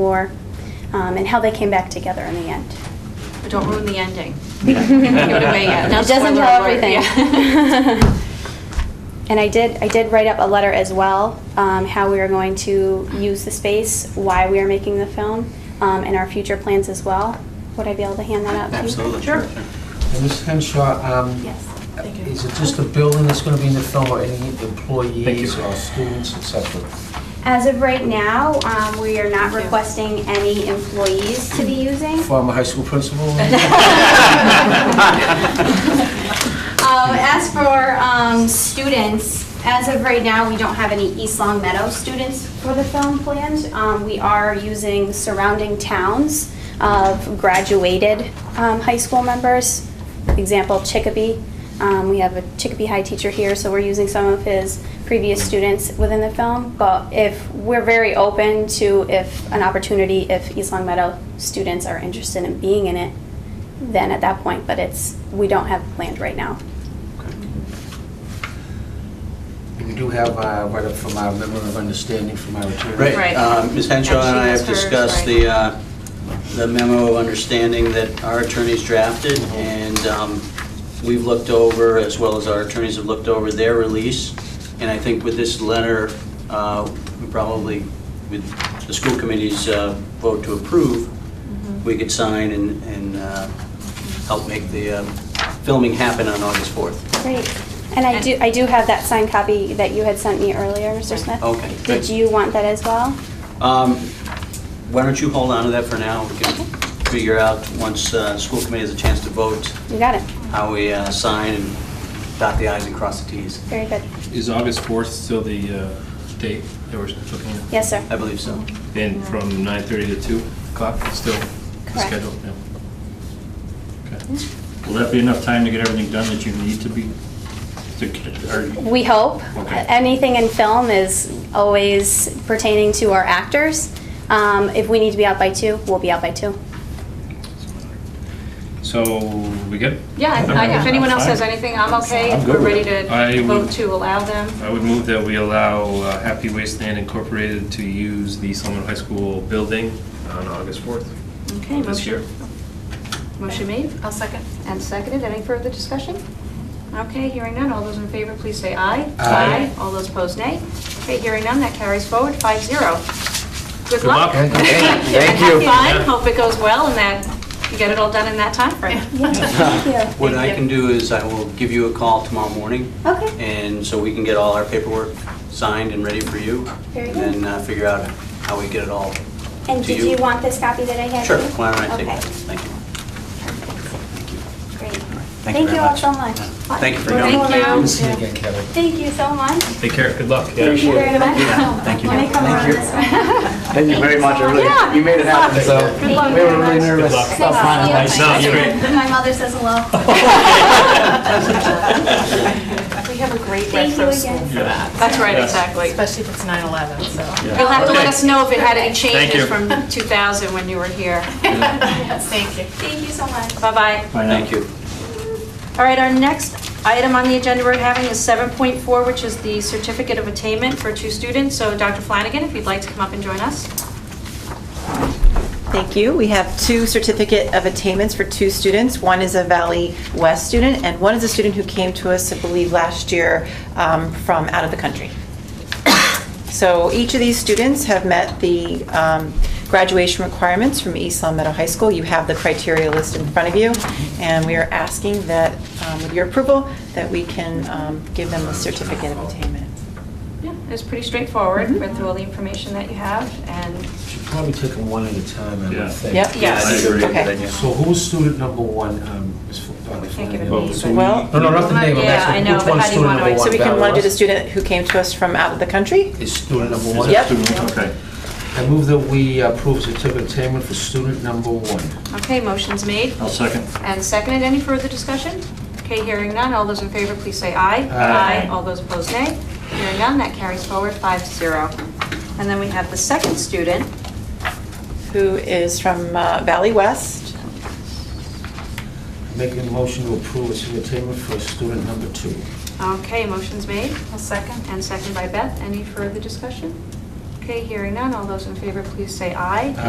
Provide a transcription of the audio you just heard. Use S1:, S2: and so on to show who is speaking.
S1: war, um, and how they came back together in the end.
S2: But don't ruin the ending. Give it away yet. No
S1: It doesn't
S2: spoiler
S1: tell
S2: alert.
S1: everything.
S2: Yeah.
S1: And I did, I did write up a letter as well, um, how we are going to use the space, why we are making the film, um, and our future plans as well. Would I be able to hand that out to you?
S3: Absolutely.
S2: Sure.
S4: And Ms. Henshaw, um,
S1: Yes.
S2: Thank you.
S4: is it just the building that's gonna be in the film, or any employees
S3: you.
S4: or students, et cetera?
S1: As of right now, um, we are not
S2: Thank you.
S1: requesting any employees to be using.
S4: Former high school principal?
S1: Um, as for um, students, as of right now, we don't have any East Long Meadow students for the film planned. Um, we are using surrounding towns of graduated um, high school members. Example, Chicopee. Um, we have a Chicopee High teacher here, so we're using some of his previous students within the film. But if we're very open to if an opportunity, if East Long Meadow students are interested in being in it, then at that point, but it's, we don't have planned right now.
S4: We do have, uh, right up from our member of understanding from our attorney.
S2: Right.
S3: Right, um, Ms. Henshaw and I have
S2: Actually, that's hers,
S3: discussed
S2: right.
S3: the, uh, the memo of understanding that our attorneys drafted, and um, we've looked over, as well as our attorneys have looked over their release, and I think with this letter, uh, we probably, with the school committee's uh, vote to approve, we could sign and, and uh, help make the um, filming happen on August 4th.
S1: Great. And I do, I do have that signed copy that you had sent me earlier, Mr. Smith.
S3: Okay,
S1: Did
S3: good.
S1: you want that as well?
S3: Um, Why don't you hold on to that for now? We can figure out, once uh, school committee has a chance to vote,
S1: You got it.
S3: how we uh, sign and dot the i's and cross the t's.
S1: Very good.
S5: Is August 4th still the uh, date that we're looking at?
S1: Yes, sir.
S3: I believe so.
S5: And from 9:30 to 2 o'clock, still the
S1: Correct. Mm-hmm.
S5: schedule? Yeah. Okay. Will that be enough time to get everything done that you need to be, to get- are you-
S1: We hope.
S5: Okay.
S1: Anything in film is always pertaining to our actors. Um, If we need to be out by two, we'll be out by two.
S5: so we good?
S2: Yeah, I- I- if anyone else has
S5: Fine.
S2: anything, I'm okay.
S5: I'm
S2: If we're
S5: good with
S2: ready
S5: it. I
S2: to vote
S5: would-
S2: to allow them.
S5: I would move that we allow uh, Happy Wasteland Incorporated to use the Solomon High School building on August 4th
S2: Okay,
S5: of this
S2: motion,
S5: year.
S2: motion made. I'll second. And seconded. Any further discussion? Okay, hearing none. All those in favor, please say aye.
S4: Aye.
S2: All those opposed, nay. Okay, hearing none. That carries forward, five zero. Good
S5: Good
S2: luck.
S5: luck. Thank you.
S2: Thank
S5: you.
S2: Have fun. Hope it goes well and that you get it all done in that timeframe.
S1: Thank you.
S3: Uh, What I can do is I will give you a call tomorrow morning,
S1: Okay.
S3: and so we can get all our paperwork signed and ready for you.
S1: Very
S3: And
S1: good.
S3: then uh, figure out how we get it all.
S1: And
S3: to
S1: did
S3: you.
S1: you want this copy that I had?
S3: Sure, why don't I take
S1: Okay.
S3: that? Thank you.
S1: Great.
S3: Thank you
S1: Thank
S3: very
S1: you all
S3: much.
S1: so much.
S3: Thank you for
S2: Thank
S3: coming.
S2: you.
S4: Good to see you again, Kelly.
S1: Thank you so much.
S5: Take care, good luck.
S1: Thank you very much.
S3: Thank you.
S1: Let me come
S3: Thank
S1: around
S3: you.
S1: this way.
S6: Thank you very much, I really, you made it happen, so.
S1: Good luck.
S6: We were really
S1: Good
S6: nervous.
S5: luck.
S6: about finding
S1: Thank
S6: places.
S1: you.
S5: No, you're great.
S1: My mother says hello.
S7: We have a great
S1: Thank you
S7: reference school
S1: again.
S7: for that,
S2: That's right,
S5: Yes.
S2: exactly.
S7: especially if it's 9/11, so.
S2: You'll have to let
S5: Okay.
S2: us know if it had any
S5: Thank
S2: changes
S5: you.
S2: from 2000 when you were here.
S7: Thank you.
S1: Thank you so much.
S2: Bye-bye.
S3: Thank you.
S2: All right, our next item on the agenda we're having is 7.4, which is the Certificate of Attainment for two students. So Dr. Flanagan, if you'd like to come up and join us.
S8: Thank you. We have two certificate of attainments for two students. One is a Valley West student, and one is a student who came to us, I believe, last year um, from out of the country. So each of these students have met the um, graduation requirements from East Long Meadow High School. You have the criteria list in front of you, and we are asking that, um, with your approval, that we can um, give them a certificate of attainment.
S2: Yeah, it was pretty straightforward.
S8: Mhm.
S2: Read through all the information that you have and
S4: Should probably take them one at a time, I
S5: Yeah.
S4: would think.
S8: Yep.
S3: Yeah, I think
S5: Yes.
S8: Okay.
S3: that's a good idea.
S4: So who's student number one, um, Ms.
S2: we can't give it
S4: Flanagan?
S6: Oh,
S5: Well,
S2: a
S5: so
S2: name. but-
S8: Well-
S4: No, no, not the name, I'm
S2: Yeah,
S4: asking
S2: I know,
S4: which
S2: but how do
S4: one's
S2: you
S4: student
S2: want to-
S4: number one?
S8: So we can
S4: Valerie
S8: want to do the
S4: Ross?
S8: student who came to us from out of the country?
S4: Is student number
S5: Is
S4: one?
S5: that
S8: Yep.
S5: student? Okay.
S4: I move that we approve certificate of attainment for student number one.
S2: Okay, motion's made
S5: I'll second.
S2: and seconded. Any further discussion? Okay, hearing none. All those in favor, please say aye.
S4: Aye.
S2: All those opposed, nay. Hearing none, that carries forward five zero. And then we have the second student.
S8: who is from uh, Valley West.
S4: Making a motion to approve certificate of attainment for student number two.
S2: Okay, motion's made
S7: I'll second.
S2: and seconded by Beth. Any further discussion? Okay, hearing none. All those in favor, please say aye.